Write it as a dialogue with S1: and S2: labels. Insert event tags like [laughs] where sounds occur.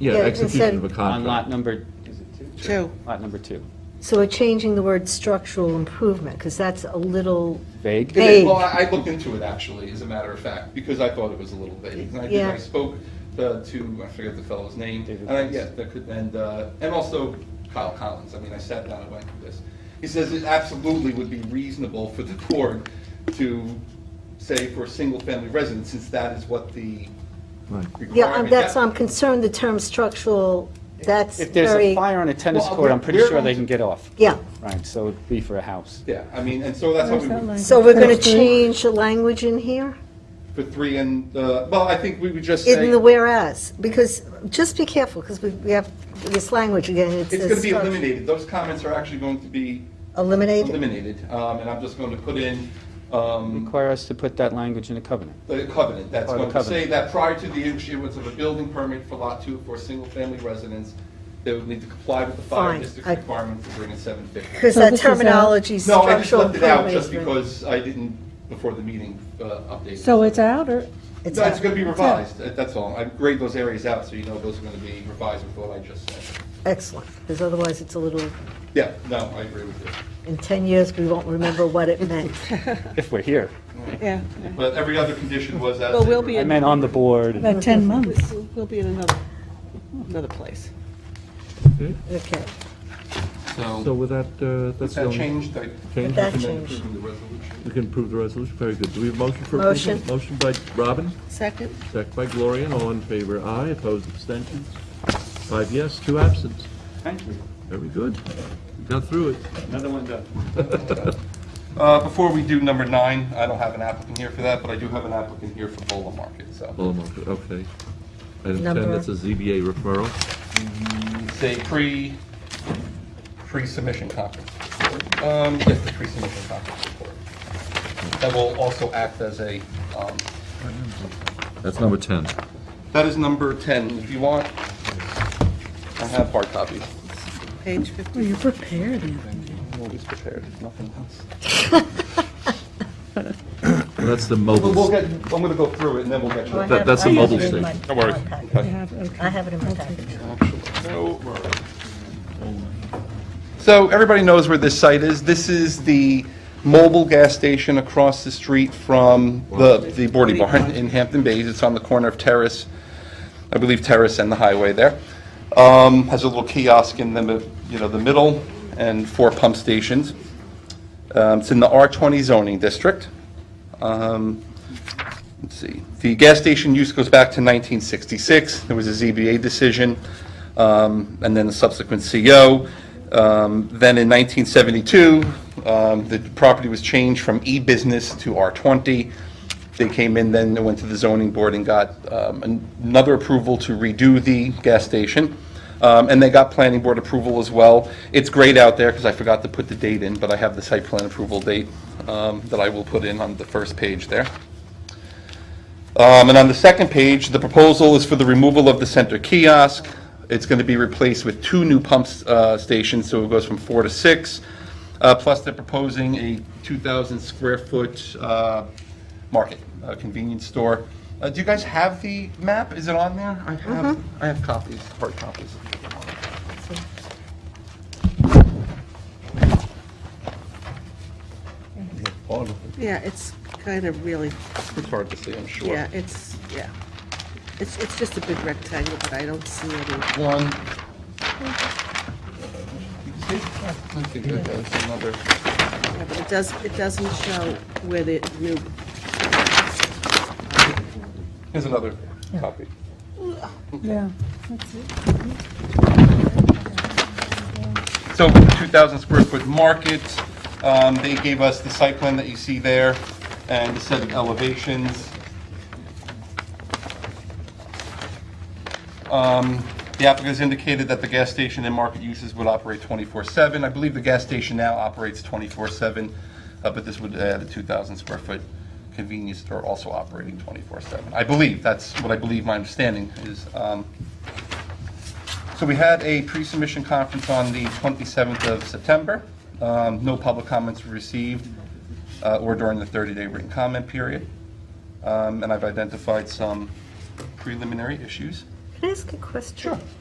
S1: Yeah,
S2: Yeah,
S1: execution of a
S2: instead-
S1: contract.
S3: on lot number,
S4: Two.
S3: lot number two.
S2: So we're changing the word structural improvement, because that's a little,
S3: Vague?
S2: Vague.
S5: It is- Well, I I looked into it actually, as a matter of fact, because I thought it was a little vague. And I think
S2: Yeah.
S5: I spoke uh, to, I forget the fellow's name,
S3: David
S5: and I,
S3: Collins.
S5: yeah, that could, and, uh, and also Kyle Collins. I mean, I sat down and went through this. He says it absolutely would be reasonable for the [laughs] board to say for a single-family residence, since that is what the
S1: Right.
S5: requirement.
S2: yeah, I'm- that's, um,
S5: that-
S2: I'm concerned the term structural, that's
S3: If there's a
S2: very,
S3: fire on a tennis
S5: Well,
S3: court, I'm pretty
S5: we're
S3: sure they
S5: going
S3: can
S5: to-
S3: get off.
S2: yeah.
S3: Right, so it'd be for a house.
S5: Yeah, I mean, and so that's how we would,
S2: So we're going to change the language in here,
S5: for three and, uh, well, I think we would just say.
S2: in the whereas, because, just be careful, because we we have this language again, it's.
S5: It's gonna
S2: a
S5: be
S2: struct-
S5: eliminated, those comments are actually going to be
S2: Eliminated?
S5: eliminated, um, and I'm just going to put in, um,
S3: Require us to put that language in a covenant.
S5: the covenant, that's
S3: Or the
S5: going to say
S3: covenant.
S5: that prior to the issuance of a building permit for lot two for a single-family residence, they would need to comply with the fire
S2: Fine,
S5: district
S2: I-
S5: requirement to bring in seven fifty.
S2: Because
S6: So
S2: that
S6: this is out.
S2: terminology,
S5: No, I just
S2: structural
S5: left it out just
S2: improvement.
S5: because I didn't, before the meeting, uh, updated.
S6: So it's out, or,
S2: It's
S5: No, it's
S2: out.
S5: gonna be revised, that- that's all, I grade those areas out, so you know those are gonna be revised with what I just said.
S2: Excellent, because otherwise it's a little,
S5: Yeah, no, I agree with you.
S2: in 10 years, we won't remember what it [laughs] meant.
S3: If we're here.
S4: Yeah,
S5: But every other condition was as.
S4: Well,
S5: they
S4: we'll
S5: were-
S4: be
S3: I meant on the board.
S6: about 10 months.
S4: we'll be in another, another place.
S2: Okay,
S1: So with that, uh, that's the
S5: That
S1: only...
S5: changed, I
S1: Change?
S2: That
S5: recommend
S2: changed.
S5: approving the resolution.
S1: We can approve the resolution, very good. Do we have motion for approval?
S2: Motion.
S1: Motion by Robin,
S4: Second?
S1: second by Gloria, all in favor, aye, opposed, abstentions? Five yes, two absent.
S3: Thank you.
S1: Very good. We Got through it.
S3: Another one done.
S5: Uh, Before we do number nine, I don't have an applicant here for that, but I do have an applicant here for Bola Market, so.
S1: Full amount, okay. Item 10,
S2: Number-
S1: that's a ZBA referral.
S5: It's a pre, pre-submission conference report. Um, Yes, the pre-submission conference report. That will also act as a, um,
S1: That's number 10.
S5: that is number 10. If you want, I have hard copies.
S4: Page 50.
S6: Well, you're prepared, Anthony.
S5: I'm always prepared, if nothing else.
S1: That's the
S5: We'll we'll
S1: mobile,
S5: get, I'm going to go through it and then we'll get you.
S2: Well, I
S1: That-
S2: have-
S1: that's
S2: I
S1: a
S2: have
S1: mobile
S2: it in
S1: station.
S2: my
S5: No worries.
S2: packet.
S6: You have, okay.
S2: I have it in my package.
S5: So everybody knows where this site is. This is the mobile gas station across the street from the the Boardy Barn in Hampton Bays. It's on the corner of Terrace, I believe Terrace and the highway there. Um, Has a little kiosk in the, mi- you know, the middle and four pump stations. Um, It's in the R20 zoning district. Um, Let's see, the gas station use goes back to 1966. There was a ZBA decision, um, and then a subsequent CO. Um, Then in 1972, um, the property was changed from E-business to R20. They came in, then they went to the zoning board and got um, an- another approval to redo the gas station. Um, And they got planning board approval as well. It's great out there, because I forgot to put the date in, but I have the site plan approval date um, that I will put in on the first page there. Um, And on the second page, the proposal is for the removal of the center kiosk. It's going to be replaced with two new pump uh, stations, so it goes from four to six. Uh, Plus, they're proposing a 2,000-square-foot market, uh, convenience store. Uh, Do you guys have the map? Is it on there? I have, I have copies, hard copies.
S4: Yeah, it's kind of really,
S5: It's hard to see, I'm sure.
S4: yeah, it's, yeah. It's, it's just a big rectangle, but I don't see any.
S5: One. You see? I think that was another.
S4: Yeah, but it does, it doesn't show where the new,
S5: Here's another copy.
S6: Yeah.
S5: So 2,000 square foot market, um, they gave us the site plan that you see there and a set of elevations. Um, The applicant has indicated that the gas station and market uses would operate 24/7. I believe the gas station now operates 24/7, uh, but this would add a 2,000 square foot convenience store also operating 24/7. I believe, that's what I believe my understanding is. um, so we had a pre-submission conference on the 27th of September. Um, No public comments were received uh, or during the 30-day written comment period. Um, And I've identified some preliminary issues.
S2: Can I ask a question? Sure.